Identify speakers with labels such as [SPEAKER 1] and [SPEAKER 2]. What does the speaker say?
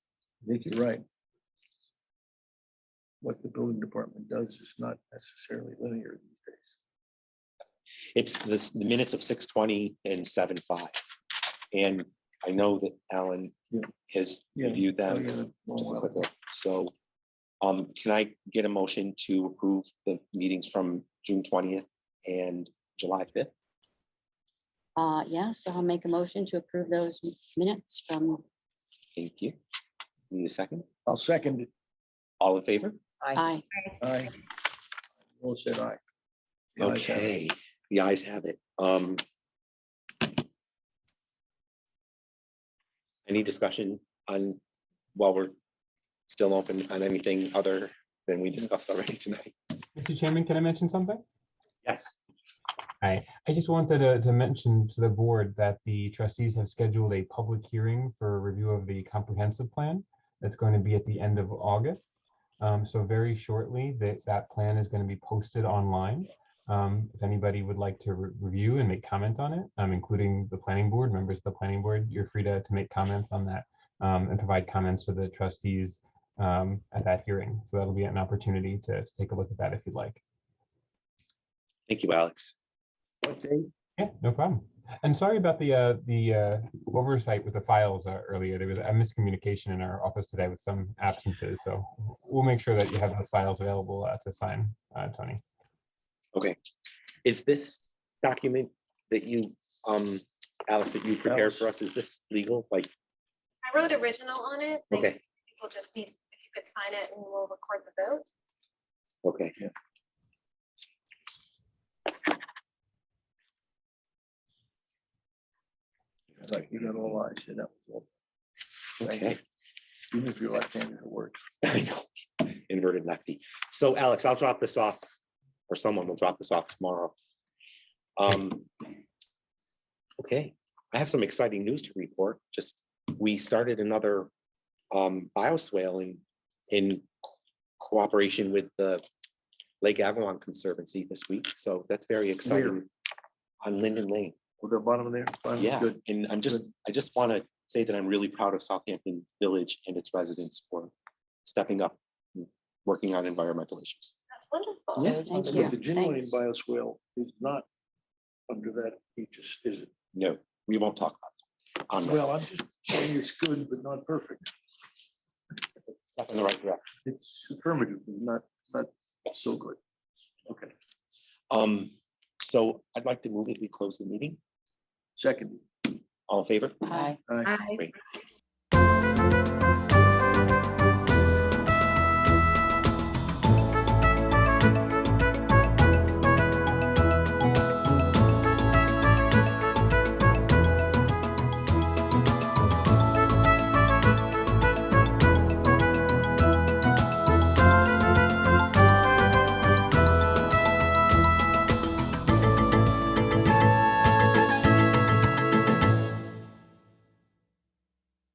[SPEAKER 1] think you're right. What the building department does is not necessarily linear these days.
[SPEAKER 2] It's this, the minutes of six twenty and seven five. And I know that Alan
[SPEAKER 1] Yeah.
[SPEAKER 2] has
[SPEAKER 1] Yeah.
[SPEAKER 2] reviewed
[SPEAKER 1] Oh,
[SPEAKER 2] them.
[SPEAKER 1] yeah, the long
[SPEAKER 2] Just a
[SPEAKER 1] one.
[SPEAKER 2] quick look. So, um, can I get a motion to approve the meetings from June twentieth and July fifth?
[SPEAKER 3] Uh, yeah, so I'll make a motion to approve those m- minutes from,
[SPEAKER 2] Thank you. Need a second?
[SPEAKER 1] I'll second it.
[SPEAKER 2] All in favor?
[SPEAKER 3] I,
[SPEAKER 1] Aye. Will said aye. The ayes have it.
[SPEAKER 2] Okay, the eyes have it. Um. Any discussion on, while we're still open on anything other than we discussed already tonight?
[SPEAKER 4] Mr. Chairman, can I mention something?
[SPEAKER 2] Yes.
[SPEAKER 4] Hi, I just wanted to, to mention to the board that the trustees have scheduled a public hearing for a review of the comprehensive plan. That's going to be at the end of August. Um, so very shortly, that, that plan is going to be posted online. Um, if anybody would like to re- review and make comment on it, um, including the planning board, members of the planning board, you're free to, to make comments on that. um, and provide comments to the trustees, um, at that hearing. So that'll be an opportunity to to take a look at that if you'd like.
[SPEAKER 2] Thank you, Alex.
[SPEAKER 1] What date?
[SPEAKER 4] Yeah, no problem. And sorry about the, uh, the, uh, oversight with the files uh, earlier. There was a miscommunication in our office today with some absences, so we'll make sure that you have those files available uh, to sign, uh, Tony.
[SPEAKER 2] Is this document that you, um, Alice, that you prepared for us, is this legal? Like,
[SPEAKER 5] I wrote original on it. but
[SPEAKER 2] okay,
[SPEAKER 5] People just need, if you could sign it and we'll record the vote.
[SPEAKER 2] okay.
[SPEAKER 1] It's Like, you got all eyes, you know.
[SPEAKER 2] Okay.
[SPEAKER 1] Even if you're left-handed, it works.
[SPEAKER 2] I know, inverted lefty. So Alex, I'll drop this off, or someone will drop this off tomorrow. Um, okay, I have some exciting news to report. Just, we started another um, bioswale in, in cooperation with the Lake Avalon Conservancy this week. So that's very exciting on Linden Lane.
[SPEAKER 1] With the bottom there. bottom,
[SPEAKER 2] Yeah,
[SPEAKER 1] Good.
[SPEAKER 2] and I'm just, I just want to say that I'm really proud of Southampton Village and its residents for stepping up, and working on environmental issues.
[SPEAKER 5] That's wonderful.
[SPEAKER 2] Yeah.
[SPEAKER 3] thank
[SPEAKER 1] But
[SPEAKER 3] you.
[SPEAKER 1] The genuine
[SPEAKER 3] Thanks.
[SPEAKER 1] bioswale is not under that aegis, is it?
[SPEAKER 2] No, we won't talk about it. On the-
[SPEAKER 1] Well, I'm just saying it's good, but not perfect.
[SPEAKER 2] step in the right direction.
[SPEAKER 1] It's affirmative, not, not so good. Okay,
[SPEAKER 2] Um, so I'd like to move that we close the meeting.
[SPEAKER 1] second.
[SPEAKER 2] All in favor?
[SPEAKER 3] I,
[SPEAKER 1] Aye.
[SPEAKER 2] Great.